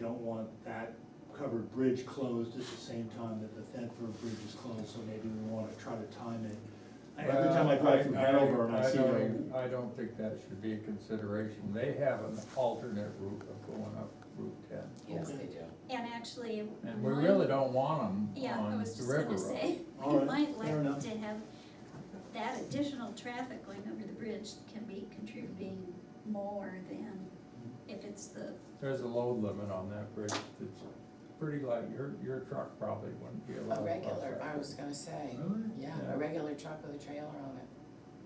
don't want that covered bridge closed at the same time that the Thetford Bridge is closed, so maybe we wanna try to time it. I- Every time I drive through Well, Hanover and I see don't the, even- I don't think that should be a consideration, they have an alternate route of going up Route ten. Yes, they do. And actually. And we one- really don't want them Yeah, I on was the just river gonna road. say, All you right, might fair like enough. to have that additional traffic going over the bridge can be contributing more than if it's the, There's a load limit on that bridge, it's pretty light, your, your truck probably wouldn't be allowed. to A cross regular, that. I was gonna say, Really? yeah, a regular truck with a trailer on it,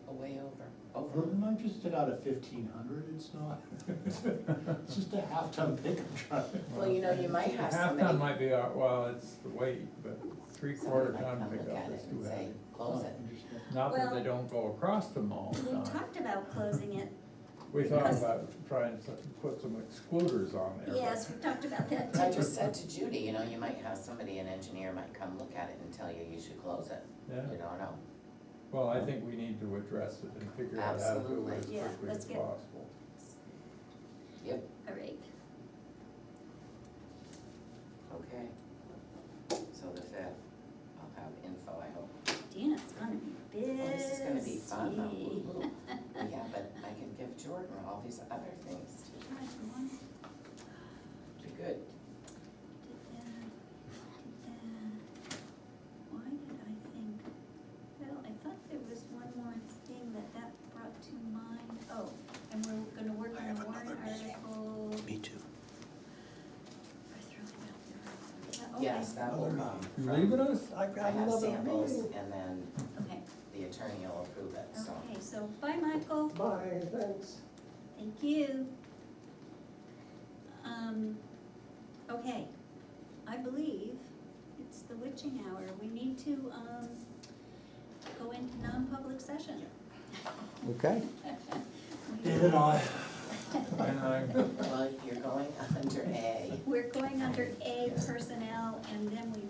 a way over, over. I'm not interested out of fifteen hundred, it's not, it's just a half-ton pickup truck. Well, you know, you might Half have ton somebody, might be, all- well, it's the weight, but three quarter somebody might ton come look pickup at is it too and say, heavy. close it. Not that they Well, don't go across them all the we time. talked about closing it. We thought because- about trying to put some excluders on there. but- Yes, we talked about that I too. just said to Judy, you know, you might have somebody, an engineer might come look at it and tell you you should close it, Yeah, you don't know. well, I think we need to address it and figure out how to do Absolutely. it as Yeah, quickly as let's get- possible. Yep, All right, okay. So the fifth, I'll have info, I hope. Dana's gonna be busy. Well, Oh, this is gonna be fun, though. Ooh. Yeah, but I can give Jordan all these other things All right, go on. to do good. Did that, did that. uh, Why did I think, well, I thought there was one more thing that that brought to mind. Oh, and we're gonna work I on have a warrant another meeting. article. Me too. I throw it out there. Yeah, Yes, that will Another come. meeting. Oh, You from- leaving us? I I got have another samples, meeting. and then Okay, the attorney will approve it, okay, so. okay, so bye, Michael. Bye, thanks. Thank you. Um, okay, I believe it's the witching hour. We need to, um, go into non-public session. Okay. David, I, And I- Well, you're going under A. We're going under A personnel and then we